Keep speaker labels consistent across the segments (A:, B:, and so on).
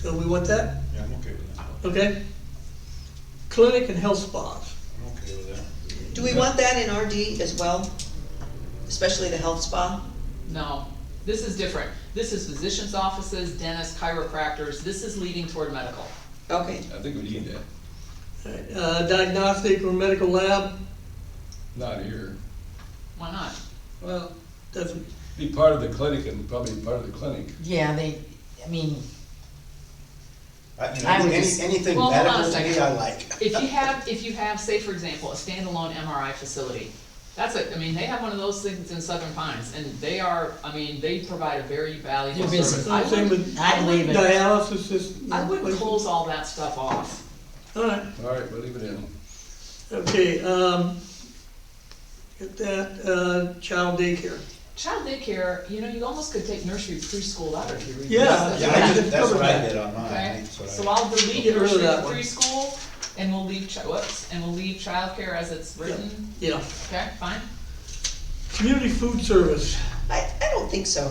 A: So we want that?
B: Yeah, I'm okay with that.
A: Okay. Clinic and health spas.
B: I'm okay with that.
C: Do we want that in RD as well? Especially the health spa?
D: No, this is different. This is physicians' offices, dentists, chiropractors, this is leading toward medical.
C: Okay,
E: I think we need that,
A: Uh, diagnostic or medical lab,
E: not here.
D: Why not?
E: Well,
A: doesn't,
E: be part of the clinic and probably part of the clinic.
F: Yeah, they, I mean,
G: I mean,
F: I would
G: any-
F: just-
G: anything
D: Well, hold on a
G: medical to me,
D: second.
G: I like.
D: If you have, if you have, say for example, a standalone MRI facility, that's a, I mean, they have one of those things in Southern Pines, and they are, I mean, they provide a very valuable
F: You're busy.
D: service. I
A: same
D: wouldn't,
A: with
F: I'd leave it.
A: dialysis is.
D: I wouldn't close all that stuff off.
A: All right,
E: All right, we'll leave it in.
A: okay, um, get that, uh, child daycare.
D: Child daycare, you know, you almost could take nursery preschool out of here.
A: Yeah.
G: Yeah, I did, that's
A: Cover
G: what I
A: that.
G: did on mine,
D: Okay,
G: that's what I.
D: so I'll delete
A: Get rid of
D: nursery
A: that one.
D: preschool, and we'll leave, chi- whoops, and we'll leave childcare as it's written,
A: Yeah,
D: okay, fine?
A: community food service,
C: I, I don't think so.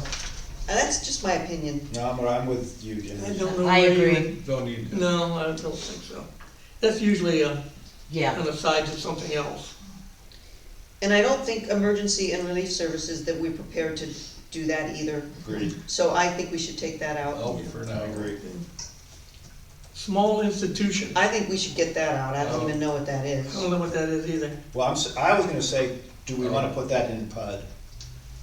C: And that's just my opinion.
G: No, I'm, I'm with you, Jim.
A: I don't know.
F: I
A: where you
F: agree.
E: Don't need
A: would-
E: that.
A: No, I don't think so. That's usually a,
F: yeah,
A: an aside to something else.
C: And I don't think emergency and relief services that we're prepared to do that either.
G: Agreed, Oh.
C: So I think we should take that out.
E: Out for
G: I
E: now.
G: agree.
A: Small institution, I
C: I think we should get that out. I don't even
G: Oh.
C: know what that is.
A: don't know what that is either.
G: Well, I'm, s- I was gonna say, do we wanna put that in PUD?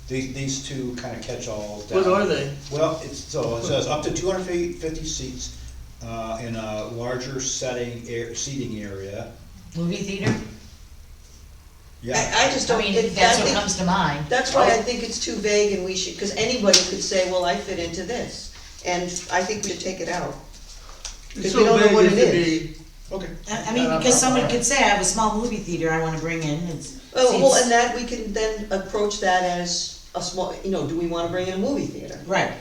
G: These, these two kinda catch-all.
A: What are they?
G: Well, it's, so it says up to two hundred fifty seats, uh, in a larger setting, air, seating area.
F: movie theater,
G: Yeah, Oh.
C: I, I just
F: I
C: don't,
F: mean,
C: it-
F: that's
C: I
F: what
C: think,
F: comes to mind.
C: that's why I think it's too vague and we should, because anybody could say, well, I fit into this. And I think we should take it out.
A: It's
C: Because we
A: so
C: don't know
A: vague
C: what
A: as
C: it
A: to
C: is.
A: be-
G: okay.
F: I, I mean, because someone could say, I have a small movie theater I wanna bring in, it's.
C: Oh, well,
F: seems-
C: and that, we can then approach that as a small, you know, do we wanna bring in a movie theater?
F: Right,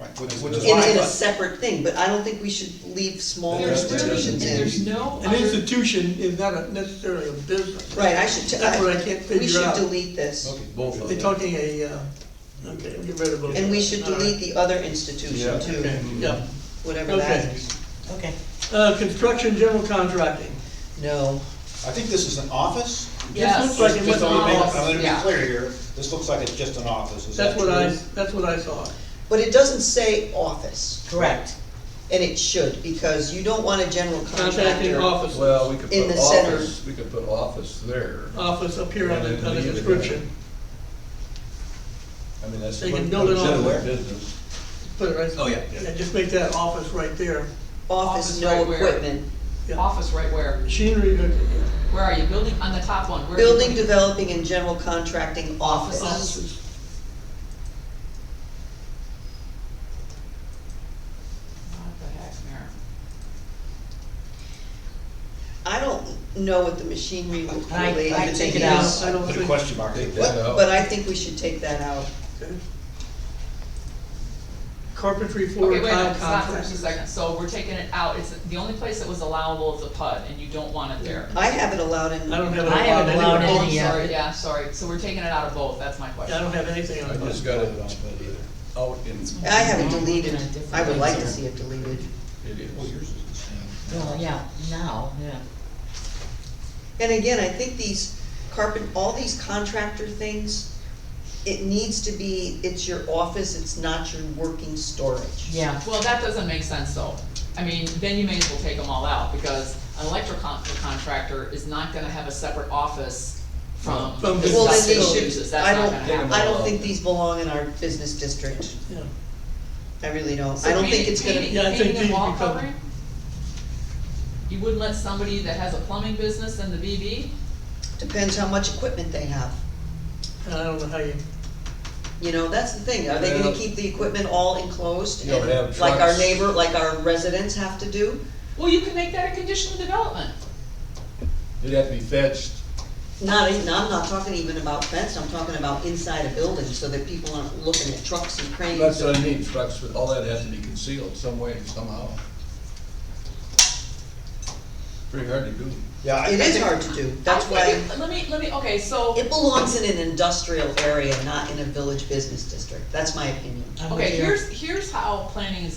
G: Right, which, which is
C: In,
G: why I
C: in a
G: thought-
C: separate thing, but I don't think we should leave small
D: There's really,
C: institutions in.
D: there's no
A: An
D: other,
A: institution is not a- necessarily a business.
C: Right, I should, t-
A: That's what I
C: I,
A: can't
C: we
A: figure
C: should
A: out.
C: delete this,
E: Okay, both of
A: They're
E: them.
A: talking a, uh, okay, we'll get rid of both.
C: and we should
A: All right.
C: delete the other
E: Yeah.
C: institution too,
A: Okay, yeah,
C: whatever that
A: okay.
C: is.
F: okay.
A: Uh, construction general contracting,
C: No,
G: I think this is an office?
D: yes.
A: looks like it was
D: it's
G: Just let me make-
D: all-
G: I'm gonna be
D: yeah.
G: clear here, this looks like it's just an office, is that
A: that's
G: true?
A: what I, that's what I saw.
C: but it doesn't say office,
F: Correct.
C: and it should, because you don't want a general
A: Contracting
C: contractor.
A: office,
E: Well, we could
C: In
E: put
C: the center.
E: office, we could put office there.
A: office up here on the, on the
E: Yeah,
A: description,
E: I mean, that's.
A: They can
E: what
A: build it
E: comes into
A: on there.
E: Business.
A: put it right.
E: Oh, yeah, yeah.
A: Yeah, just make that office right there,
C: Office,
D: Office
C: no
D: right where?
C: equipment.
A: yeah,
D: Office right where,
A: machinery, uh,
D: where are you, building, on the top one, where? are you
C: Building,
D: putting-
C: developing, and general contracting office.
A: offices.
D: What the heck, Mayor?
C: I don't know what the machinery would
F: I-
C: related
F: I
C: to
F: take it
C: these.
F: out.
A: I don't
G: Put a
A: think,
G: question mark.
E: Take
G: What?
E: that out.
C: But I think we should take that out.
A: okay. Carpentry floor
D: Okay, wait a
A: tile
D: minute, stop for just a
A: contractors.
D: second, so we're taking it out, it's, the only place that was allowable is a PUD, and you don't want it there.
C: I have it allowed in.
A: I don't have it
F: I haven't
A: allowed anywhere.
D: Oh,
F: allowed
D: I'm
F: any, uh,
D: sorry, yeah, sorry, so we're taking it out of both, that's my
A: Yeah, I
D: question.
A: don't have anything
E: I
A: on
E: just
A: it.
E: got it
G: Not bad either.
E: out in,
C: I have it deleted.
F: Yeah, different
C: I would like to
F: things.
C: see it deleted.
E: it is.
G: Well, yours is the same.
F: Well, yeah, now, yeah.
C: And again, I think these carpet, all these contractor things, it needs to be, it's your office, it's not your working storage.
F: Yeah,
D: Well, that doesn't make sense though, I mean, then you may as well take them all out, because an electrical con- contractor is not gonna have a separate office from the
A: From
D: stuff
A: his
C: Well, then
D: that he
C: they
A: facilities,
D: uses,
C: should,
D: that's
C: I
D: not
C: don't,
D: gonna happen.
C: I don't think these belong in our business district.
A: Yeah.
C: I really don't.
D: So
C: I don't think
D: painting-
C: it's gonna,
D: painting-
A: Yeah, I think
D: painting and
A: these
D: wall
A: become-
D: covering? You wouldn't let somebody that has a plumbing business in the BB?
C: depends how much equipment they have.
A: I don't know how you,
C: You know, that's the thing, are they gonna
E: Yeah.
C: keep the equipment all enclosed?
E: You don't
C: and
E: have
C: Like our
E: trucks.
C: neighbor, like our residents have to do?
D: Well, you can make that a condition of development.
E: It'd have to be fetched.
C: Not, even- I'm not talking even about fence, I'm talking about inside a building, so that people aren't looking at trucks and
E: That's
C: cranes.
E: what I mean, trucks, but all that has to be concealed some way, somehow. Pretty hard to do.
G: Yeah. I-
C: It
G: I
C: is
G: think-
C: hard to do, that's
D: I
C: why,
D: think- Let me, let me, okay, so,
C: it belongs in an industrial area, not in a village business district, that's my opinion.
F: I'm with
D: okay,
F: you.
D: here's, here's how planning is